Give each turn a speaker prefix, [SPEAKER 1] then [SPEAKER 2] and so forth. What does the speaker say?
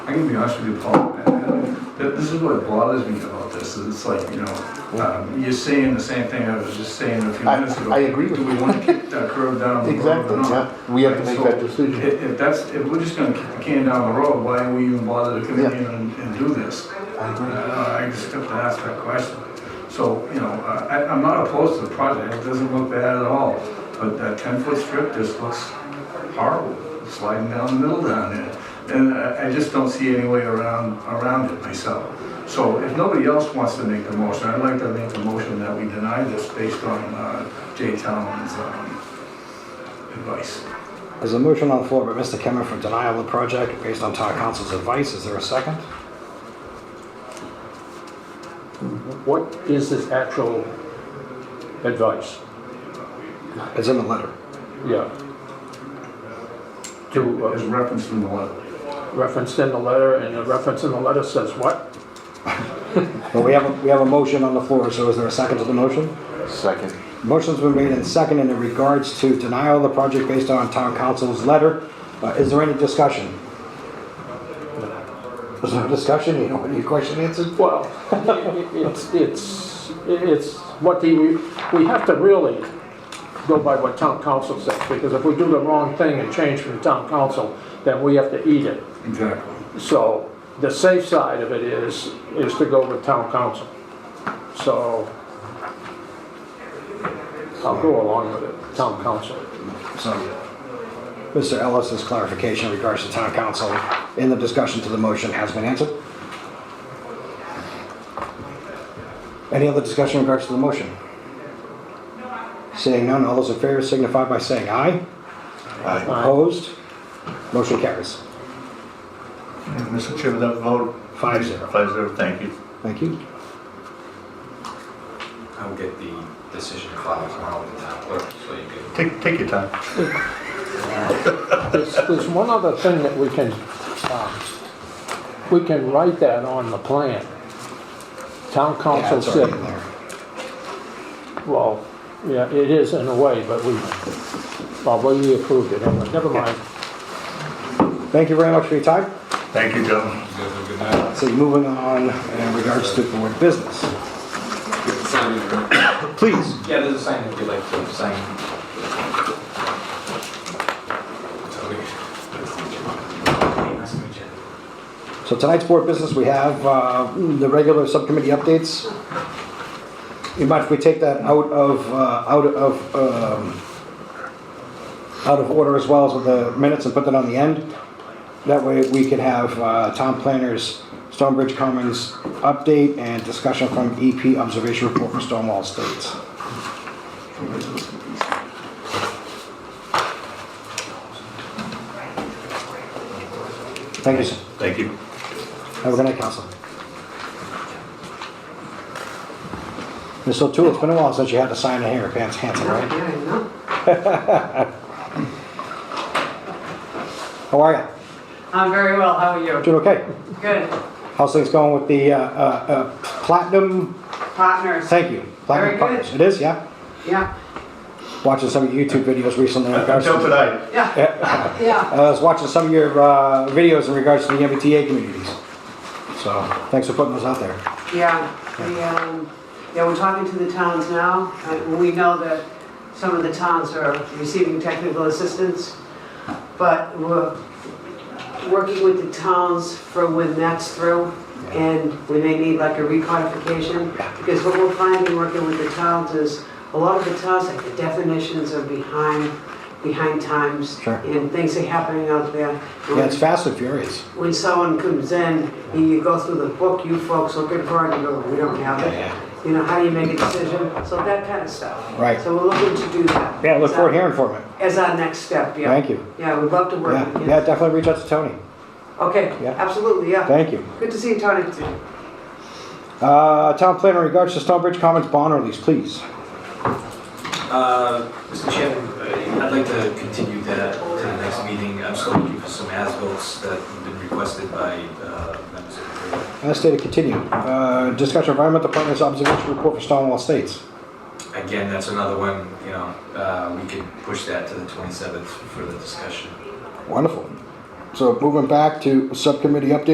[SPEAKER 1] I'm gonna be honest with you, Paul, man, that this is what bothers me about this, is it's like, you know, um, you're saying the same thing I was just saying a few
[SPEAKER 2] I-
[SPEAKER 1] minutes ago.
[SPEAKER 2] I agree with
[SPEAKER 1] Do we
[SPEAKER 2] you.
[SPEAKER 1] wanna kick that curve down the road or
[SPEAKER 2] Exactly,
[SPEAKER 1] not?
[SPEAKER 2] yeah. We have to
[SPEAKER 1] Right,
[SPEAKER 2] make
[SPEAKER 1] so
[SPEAKER 2] that decision.
[SPEAKER 1] If, if that's, if we're just gonna kick the can down the road, why are we even bother to come in
[SPEAKER 2] Yeah.
[SPEAKER 1] here and, and do this?
[SPEAKER 2] I agree.
[SPEAKER 1] Uh, I just have to ask that question. So, you know, uh, I, I'm not opposed to the project, it doesn't look bad at all, but that ten-foot strip just looks horrible, sliding down the middle down there. And I, I just don't see any way around, around it myself. So if nobody else wants to make the motion, I'd like to make a motion that we deny this based on, uh, Jay Talman's, um, advice.
[SPEAKER 3] There's a motion on the floor by Mr. Kemmett for denial of the project based on town council's advice. Is there a second?
[SPEAKER 4] What is this actual advice?
[SPEAKER 3] It's in the letter.
[SPEAKER 4] Yeah. To
[SPEAKER 1] As
[SPEAKER 4] uh,
[SPEAKER 1] referenced in the letter.
[SPEAKER 4] reference in the letter, and the reference in the letter says what?
[SPEAKER 3] But we have, a- we have a motion on the floor, so is there a second to the motion?
[SPEAKER 2] Second.
[SPEAKER 3] Motion's been made and seconded in regards to denial of the project based on town council's letter. Uh, Is there any discussion? There's no discussion, you don't want your question answered?
[SPEAKER 4] Well, i- i- it's, it's, it's what the, we have to really go by what town council says, because if we do the wrong thing and change from town council, then we have to eat it.
[SPEAKER 1] Exactly.
[SPEAKER 4] So the safe side of it is, is to go with town council. So I'll go along with it, town council.
[SPEAKER 3] So, Mr. Ellis's clarification in regards to town council in the discussion to the motion has been answered. Any other discussion in regards to the motion? Seeing none, all those in favor signify by saying aye.
[SPEAKER 2] Aye.
[SPEAKER 3] Opposed? Motion carries.
[SPEAKER 5] Mr. Chairman, that vote?
[SPEAKER 3] Five zero.
[SPEAKER 5] Five zero, thank you.
[SPEAKER 3] Thank you.
[SPEAKER 6] I'll get the decision filed tomorrow with the town clerk, so you can
[SPEAKER 5] Take, take your time.
[SPEAKER 4] There's, there's one other thing that we can, um, we can write that on the plan. Town
[SPEAKER 3] Yeah,
[SPEAKER 4] council
[SPEAKER 3] it's already
[SPEAKER 4] said,
[SPEAKER 3] in there.
[SPEAKER 4] well, yeah, it is in a way, but we, well, we approved it, anyway. never mind.
[SPEAKER 3] Thank you very much for your time.
[SPEAKER 5] Thank you, gentlemen.
[SPEAKER 6] you guys have a good night.
[SPEAKER 3] So moving on in regards to board business.
[SPEAKER 6] Sign in the room.
[SPEAKER 3] Please.
[SPEAKER 6] Yeah, there's a sign if you'd like to sign. Tony. Nice to meet you.
[SPEAKER 3] So tonight's board business, we have uh, the regular subcommittee updates. You mind if we take that out of, uh, out of, um, out of order as well as with the minutes and put that on the end? That way we can have uh, town planners, Stonebridge Commons update and discussion from EP observation report for Stonewall Estates. Thank you, sir.
[SPEAKER 5] Thank you.
[SPEAKER 3] Have a good night, Council. Mr. O'Toole, it's been a while since you had to sign in here, Pants Hanson, right?
[SPEAKER 7] Yeah, I know.
[SPEAKER 3] How are you?
[SPEAKER 7] I'm very well, how are you?
[SPEAKER 3] Doing okay?
[SPEAKER 7] Good.
[SPEAKER 3] How's things going with the uh, uh, uh, Platinum,
[SPEAKER 7] Partners,
[SPEAKER 3] thank you. Platinum
[SPEAKER 7] Very good.
[SPEAKER 3] Partners. It is, yeah?
[SPEAKER 7] yeah,
[SPEAKER 3] Watching some of your YouTube videos recently in regards
[SPEAKER 5] Until
[SPEAKER 3] to...
[SPEAKER 5] tonight.
[SPEAKER 7] yeah,
[SPEAKER 3] Yeah.
[SPEAKER 7] yeah.
[SPEAKER 3] I was watching some of your uh, videos in regards to the MBTA communities. So, thanks for putting those out there.
[SPEAKER 7] Yeah, we, um, yeah, we're talking to the towns now. Uh, We know that some of the towns are receiving technical assistance, but we're working with the towns for when that's through, and we may need like a recodification, because what we're finding working with the towns is, a lot of the towns, like the definitions are behind, behind times,
[SPEAKER 3] Sure.
[SPEAKER 7] and things are happening out there. and
[SPEAKER 3] Yeah, it's fast and furious.
[SPEAKER 7] when someone comes in and you go through the book, you folks look at part and you go, we don't have
[SPEAKER 3] Yeah,
[SPEAKER 7] it. You know, how do you make a decision? So that kind of stuff.
[SPEAKER 3] Right.
[SPEAKER 7] So we're looking to do that.
[SPEAKER 3] Yeah, look
[SPEAKER 7] as
[SPEAKER 3] forward to
[SPEAKER 7] our-
[SPEAKER 3] hearing from it.
[SPEAKER 7] As our next step, yeah.
[SPEAKER 3] Thank you.
[SPEAKER 7] Yeah, we'd love to work
[SPEAKER 3] Yeah,
[SPEAKER 7] with
[SPEAKER 3] Yeah,
[SPEAKER 7] you.
[SPEAKER 3] definitely reach out to Tony.
[SPEAKER 7] Okay,
[SPEAKER 3] Yeah.
[SPEAKER 7] absolutely, yeah.
[SPEAKER 3] Thank you.
[SPEAKER 7] Good to see you, Tony.
[SPEAKER 3] Uh, Town planner, in regards to Stonebridge Commons bond release, please.
[SPEAKER 6] Uh, Mr. Chairman, uh, I'd like to continue that to the next meeting. I'm still looking for some ASBILs that have been requested by uh, members of the board.
[SPEAKER 3] As stated, continue. Uh, Discussion of environment department's observation report for Stonewall Estates.
[SPEAKER 6] Again, that's another one, you know, uh, we could push that to the 27th for the discussion.
[SPEAKER 3] Wonderful. So moving back to subcommittee update